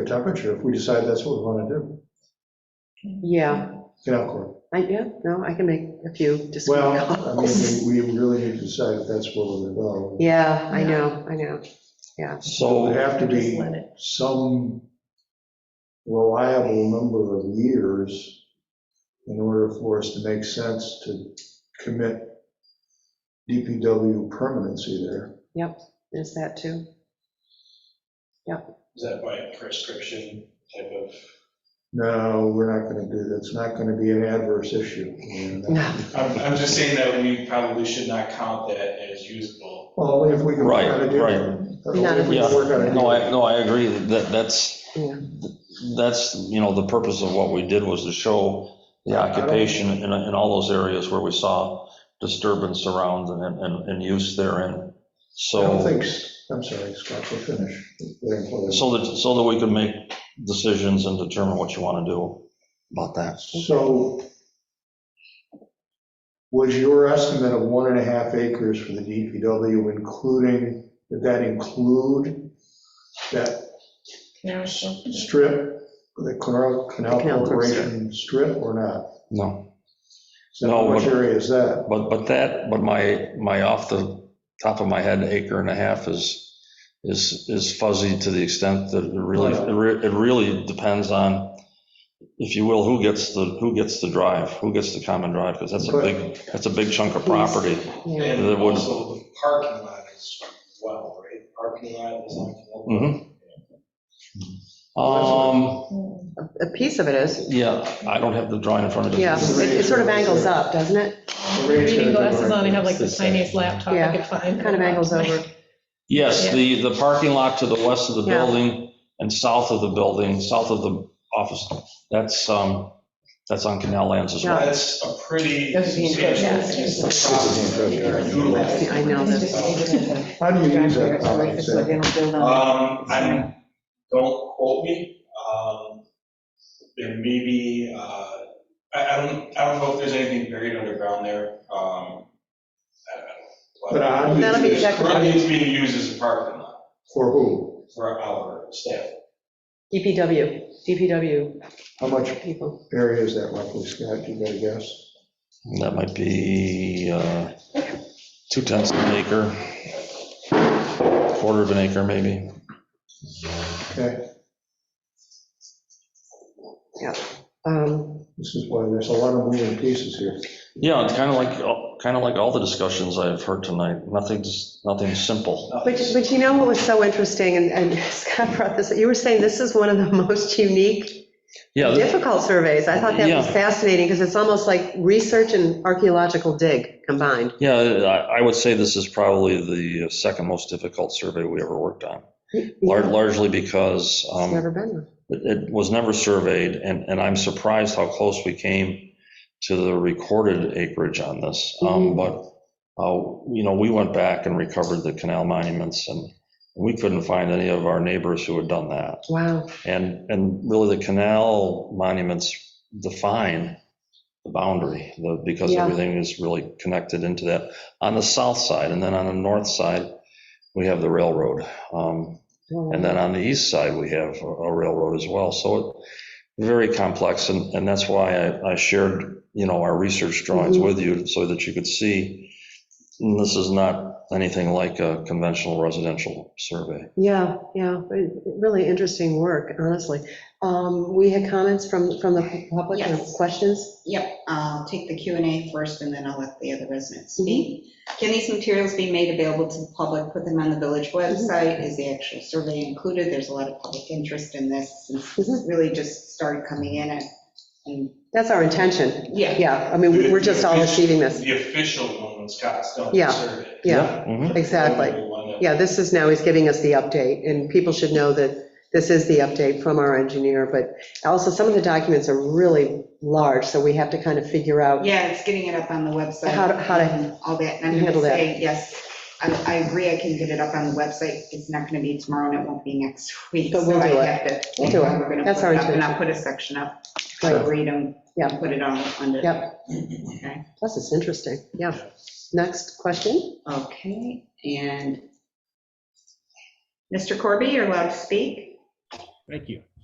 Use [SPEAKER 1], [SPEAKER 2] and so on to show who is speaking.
[SPEAKER 1] the temperature if we decide that's what we want to do.
[SPEAKER 2] Yeah,
[SPEAKER 1] You know, Cory.
[SPEAKER 2] I, yeah, no, I can make a few just.
[SPEAKER 1] Well, I mean, we we really need to decide if that's where we're going to
[SPEAKER 2] Yeah, I know, I know.
[SPEAKER 1] go. So it'd have to
[SPEAKER 3] Just
[SPEAKER 1] be
[SPEAKER 3] let it.
[SPEAKER 1] some reliable number of years in order for us to make sense to commit DPW permanency there.
[SPEAKER 2] There's that too.
[SPEAKER 4] Is that by a prescription type of?
[SPEAKER 1] No, we're not going to do, that's not going to be an adverse issue. We're not-
[SPEAKER 2] No,
[SPEAKER 4] I'm, I'm just saying that we probably should not count that as usable.
[SPEAKER 1] Well, if we can work
[SPEAKER 5] Right,
[SPEAKER 1] out a deal.
[SPEAKER 5] right.
[SPEAKER 1] If we can work out a
[SPEAKER 5] No, I,
[SPEAKER 1] deal.
[SPEAKER 5] no, I agree, that, that's,
[SPEAKER 2] Yeah.
[SPEAKER 5] that's, you know, the purpose of what we did was to show the
[SPEAKER 1] Yeah, I don't-
[SPEAKER 5] occupation in, in all those areas where we saw disturbance around and, and, and use therein.
[SPEAKER 1] I don't
[SPEAKER 5] So,
[SPEAKER 1] think, s- Oh, I'm sorry, Scott, we'll finish.
[SPEAKER 5] so that, so that we can make decisions and determine what you want to do about that.
[SPEAKER 1] So was your estimate of one and a half acres for the DPW including, did that include that
[SPEAKER 3] Yeah, so-
[SPEAKER 1] strip, the Canal Canal
[SPEAKER 2] The Canal
[SPEAKER 1] Corporation strip or not?
[SPEAKER 5] No,
[SPEAKER 1] So
[SPEAKER 5] No,
[SPEAKER 1] how much
[SPEAKER 5] but-
[SPEAKER 1] area is that?
[SPEAKER 5] but, but that, but my, my off the top of my head acre and a half is, is, is fuzzy to the extent that it really,
[SPEAKER 1] Right.
[SPEAKER 5] it re- it really depends on, if you will, who gets the, who gets the drive, who gets the common drive, because that's a
[SPEAKER 1] Right.
[SPEAKER 5] big, that's a big chunk of property.
[SPEAKER 2] yeah,
[SPEAKER 4] And
[SPEAKER 5] That would-
[SPEAKER 4] also the parking lot as well, right? Parking lot is like.
[SPEAKER 5] Mhm. Um,
[SPEAKER 3] Mm.
[SPEAKER 2] a piece of it is,
[SPEAKER 5] yeah, I don't have the drawing in front of me.
[SPEAKER 2] yeah. It it sort of angles up, doesn't it?
[SPEAKER 3] Reading glasses on, I have like the tiniest laptop
[SPEAKER 2] Yeah,
[SPEAKER 3] I could find.
[SPEAKER 2] Kind of angles over.
[SPEAKER 5] Yes,
[SPEAKER 3] Yeah.
[SPEAKER 5] the, the parking lot to the west of the
[SPEAKER 2] Yeah.
[SPEAKER 5] building and south of the building, south of the office, that's, um, that's on canal lands as well.
[SPEAKER 4] That's a pretty.
[SPEAKER 2] That's the impression.
[SPEAKER 3] Yeah, it's
[SPEAKER 4] substantial piece of
[SPEAKER 3] just-
[SPEAKER 4] property
[SPEAKER 1] It's the
[SPEAKER 4] that we are
[SPEAKER 1] impression.
[SPEAKER 4] utilizing.
[SPEAKER 2] I know this.
[SPEAKER 1] How do you use that? common sense?
[SPEAKER 4] Um, I'm, don't quote me, um, there may be, uh, I, I don't, I don't know if there's anything buried underground there, um, I don't know.
[SPEAKER 1] But I- That'll
[SPEAKER 2] be
[SPEAKER 4] It's
[SPEAKER 2] checked.
[SPEAKER 4] currently It's being used as a parking lot
[SPEAKER 1] For who?
[SPEAKER 4] for our staff.
[SPEAKER 2] DPW, DPW
[SPEAKER 1] How much
[SPEAKER 2] people.
[SPEAKER 1] area is that roughly, Scott? You got a guess?
[SPEAKER 5] That might be uh, two tenths of an acre, quarter of an acre, maybe.
[SPEAKER 1] Okay,
[SPEAKER 2] Um,
[SPEAKER 1] this is why there's a lot of moving pieces here.
[SPEAKER 5] Yeah, it's kind of like, kind of like all the discussions I've heard tonight. Nothing's, nothing's simple.
[SPEAKER 2] But, but you know what was so interesting, and, and Scott brought this, you were saying this is one of the most unique,
[SPEAKER 5] Yeah, th-
[SPEAKER 2] difficult surveys. I thought that was
[SPEAKER 5] Yeah.
[SPEAKER 2] fascinating, because it's almost like research and archaeological dig combined.
[SPEAKER 5] yeah, I I would say this is probably the second most difficult survey we ever worked on, lar- largely because
[SPEAKER 2] It's
[SPEAKER 5] um,
[SPEAKER 2] never been one.
[SPEAKER 5] it it was never surveyed, and, and I'm surprised how close we came to the recorded acreage on this. Um,
[SPEAKER 2] Mhm.
[SPEAKER 5] But, uh, you know, we went back and recovered the canal monuments, and we couldn't find any of our neighbors who had done that.
[SPEAKER 2] Wow,
[SPEAKER 5] And, and really, the canal monuments define the boundary, the- because
[SPEAKER 2] Yeah.
[SPEAKER 5] everything is really connected into that. On the south side, and then on the north side, we have the railroad. Um, and then on the east side, we have a a railroad as well. So it very complex, and, and that's why I, I shared, you know, our research drawings
[SPEAKER 2] Mhm.
[SPEAKER 5] with you so that you could see mm, this is not anything like a conventional residential survey.
[SPEAKER 2] Yeah, yeah, it- really interesting work, honestly. Um, We had comments from, from the public, or
[SPEAKER 6] Yes.
[SPEAKER 2] questions?
[SPEAKER 6] Yep, I'll take the Q and A first, and then I'll let the other residents
[SPEAKER 2] Mm-hmm.
[SPEAKER 6] speak. Can these materials be made available to the public, put them on the
[SPEAKER 2] Mm-hmm.
[SPEAKER 6] village website? Is the actual survey included? There's a lot of public interest in this, since this
[SPEAKER 2] Mm-hmm.
[SPEAKER 6] has really just started coming in, and- and,
[SPEAKER 2] That's our intention,
[SPEAKER 6] yeah.
[SPEAKER 2] yeah, I mean, we- we're just all receiving this,
[SPEAKER 4] The official one, when Scott's done
[SPEAKER 2] Yeah,
[SPEAKER 4] the survey.
[SPEAKER 2] yeah,
[SPEAKER 4] Mm-hmm.
[SPEAKER 5] Mhm.
[SPEAKER 2] exactly.
[SPEAKER 4] The one that-
[SPEAKER 2] Yeah, this is now, he's giving us the update, and people should know that this is the update from our engineer, but also some of the documents are really large, so we have to kind of figure out.
[SPEAKER 6] Yeah, it's getting it up on the website.
[SPEAKER 2] How to- how to
[SPEAKER 6] and All that, and I'm
[SPEAKER 2] handle
[SPEAKER 6] gonna
[SPEAKER 2] that.
[SPEAKER 6] say, yes, I, I agree, I can get it up on the website, it's not gonna be tomorrow, and it won't be next week.
[SPEAKER 2] But we'll
[SPEAKER 6] so I
[SPEAKER 2] do it.
[SPEAKER 6] have to-
[SPEAKER 2] We'll do it.
[SPEAKER 6] We're gonna
[SPEAKER 2] That's
[SPEAKER 6] put
[SPEAKER 2] our
[SPEAKER 6] it up, And
[SPEAKER 2] intention.
[SPEAKER 6] I'll put a section up,
[SPEAKER 2] Right.
[SPEAKER 6] to read them,
[SPEAKER 2] Yeah.
[SPEAKER 6] put it all under.
[SPEAKER 2] Yep.
[SPEAKER 6] Okay.
[SPEAKER 2] Plus, it's interesting, yeah. Next question?
[SPEAKER 6] Okay, and Mr. Corby, you're allowed to speak.
[SPEAKER 7] Thank you.